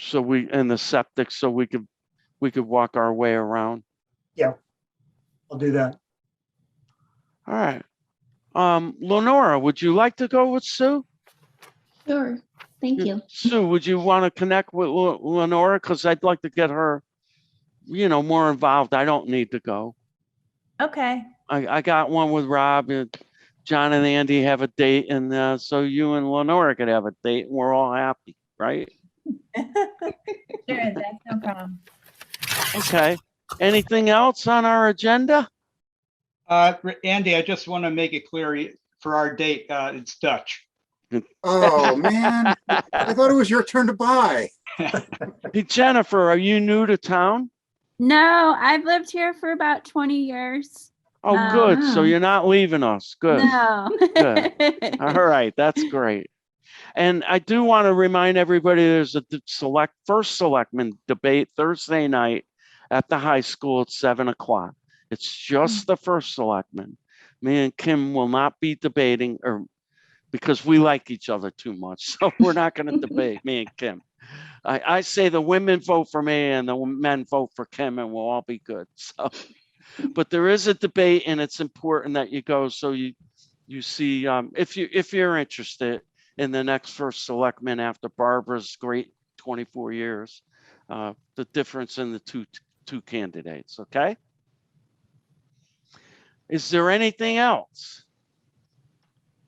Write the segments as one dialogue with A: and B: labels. A: so we, and the septic, so we could, we could walk our way around.
B: I'll do that.
A: All right. Um, Lenora, would you like to go with Sue?
C: Sure, thank you.
A: Sue, would you want to connect with Le- Lenora? Because I'd like to get her, you know, more involved. I don't need to go.
D: Okay.
A: I, I got one with Rob and John and Andy have a date and, uh, so you and Lenora could have a date and we're all happy, right?
D: Sure, that's no problem.
A: Okay. Anything else on our agenda?
E: Uh, R- Andy, I just want to make it clear y- for our date, uh, it's Dutch.
F: Oh, man. I thought it was your turn to buy.
A: Hey, Jennifer, are you new to town?
C: No, I've lived here for about 20 years.
A: Oh, good. So
C: Um,
A: you're not leaving us. Good.
C: No.
A: All right. That's great. And I do want to remind everybody, there's a d- select, first selectman debate Thursday night at the high school at seven o'clock. It's just the first selectman. Me and Kim will not be debating or because we like each other too much. So we're not going to debate, me and Kim. I, I say the women vote for me and the men vote for Kim and we'll all be good. So, but there is a debate and it's important that you go so you, you see, um, if you, if you're interested in the next first selectman after Barbara's great 24 years, uh, the difference in the two, two candidates, okay? Is there anything else?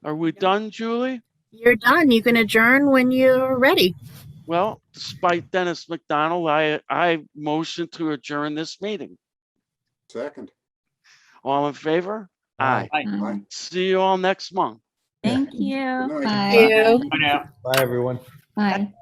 A: Are we done, Julie?
G: You're done. You can adjourn when you're ready.
A: Well, despite Dennis McDonald, I, I motion to adjourn this meeting.
F: Second.
A: All in favor? Aye.
C: Um,
A: See you all next month.
C: Thank you.
F: Good night.
C: Bye.
E: Bye now.
H: Bye, everyone.
C: Bye.